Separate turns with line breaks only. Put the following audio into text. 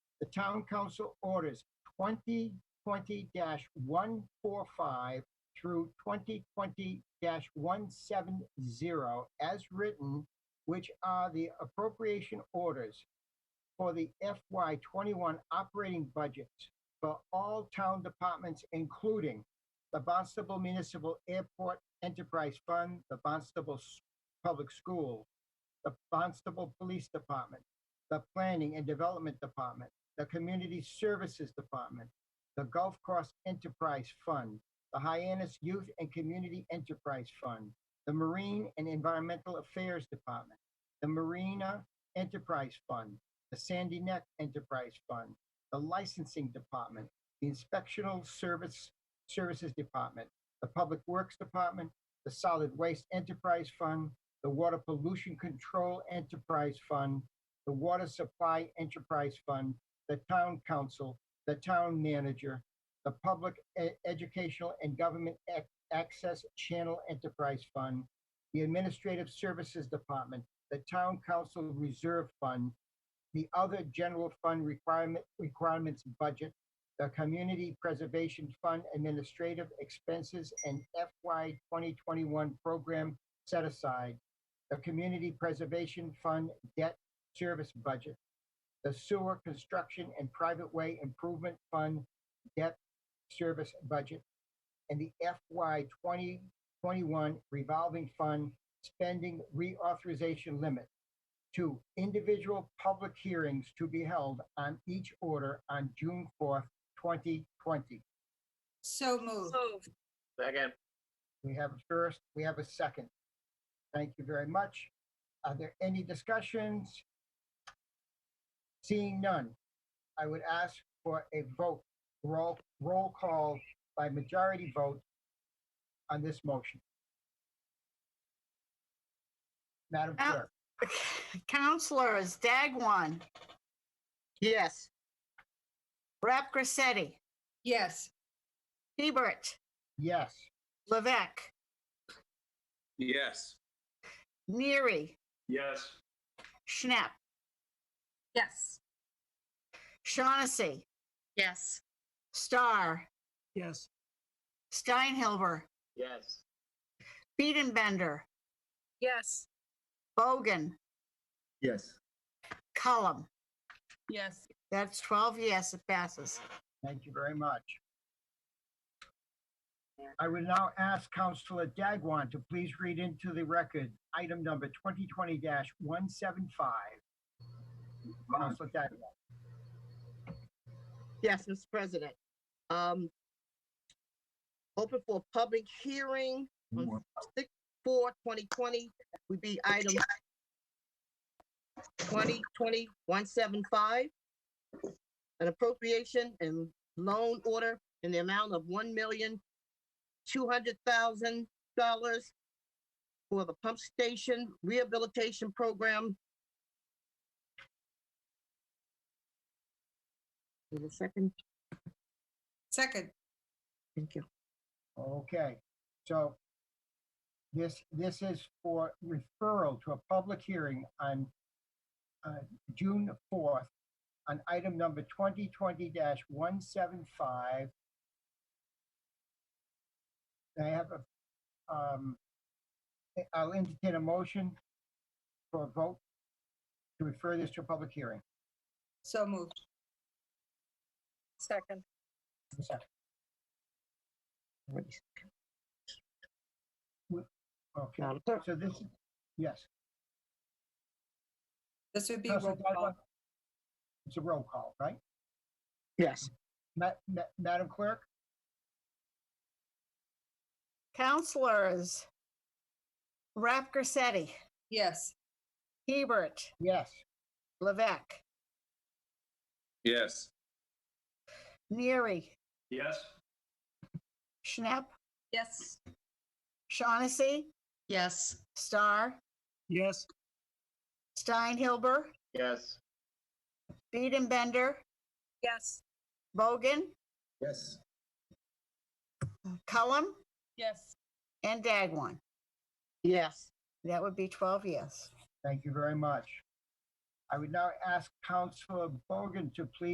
the town council orders twenty twenty one four five through twenty twenty one seven zero as written, which are the appropriation orders for the FY twenty-one operating budgets for all town departments, including the Barnstable Municipal Airport Enterprise Fund, the Barnstable S- Public School, the Barnstable Police Department, the Planning and Development Department, the Community Services Department, the Gulf Coast Enterprise Fund, the Hyannis Youth and Community Enterprise Fund, the Marine and Environmental Affairs Department, the Marina Enterprise Fund, the Sandy Neck Enterprise Fund, the Licensing Department, the Inspectional Service, Services Department, the Public Works Department, the Solid Waste Enterprise Fund, the Water Pollution Control Enterprise Fund, the Water Supply Enterprise Fund, the Town Council, the Town Manager, the Public E- Educational and Government Ac- Access Channel Enterprise Fund, the Administrative Services Department, the Town Council Reserve Fund, the other general fund requirement, requirements budget, the Community Preservation Fund Administrative Expenses and FY 2021 Program Set Aside, the Community Preservation Fund Debt Service Budget, the Sewer Construction and Private Way Improvement Fund Debt Service Budget, and the FY 2021 Revolving Fund Spending Reauthorization Limit, Two, individual public hearings to be held on each order on June fourth, twenty twenty.
So moved.
Moved.
Second,
We have a first, we have a second. Thank you very much. Are there any discussions? Seeing none, I would ask for a vote, roll, roll call by majority vote on this motion. Madam
Al-
Clerk?
Counselors Dagwan,
Yes.
Rep Grissetti,
Yes.
Hebert,
Yes.
Levesque,
Yes.
Neary,
Yes.
Schnapp,
Yes.
Shaughnessy,
Yes.
Starr,
Yes.
Steinhilber,
yes,
Beedenbender,
Yes.
Bogan,
Yes.
Cullum.
Yes.
That's 12 yes, it passes.
Thank you very much. I will now ask Counselor Dagwan to please read into the record item number 2020-175. Counselor Dagwan,
Yes, Mr. President. Um, open for a public hearing on six, four, twenty twenty would be item twenty twenty one seven five. An appropriation and loan order in the amount of one million two hundred thousand dollars for the pump station rehabilitation program. Wait a second.
Second.
Thank you.
okay. So this, this is for referral to a public hearing on uh, June 4th on item number 2020-175. I have a, um, I- I'll entertain a motion for a vote to refer this to a public hearing.
So moved.
Second.
A second.
Alright.
Okay,
Madam Clerk?
so this, yes.
This would be
Counselor Dagwan? It's a roll call, right?
Yes.
Ma- ma- Madam Clerk?
Counselors Rep Grissetti,
Yes.
Hebert,
Yes.
Levesque,
Yes.
Neary,
Yes.
Schnapp,
Yes.
Shaughnessy,
Yes.
Starr,
Yes.
Steinhilber,
yes,
Beedenbender,
Yes.
Bogan,
Yes.
Cullum,
Yes.
and Dagwan.
Yes.
That would be 12 yes.
Thank you very much. I would now ask Counselor Bogan to please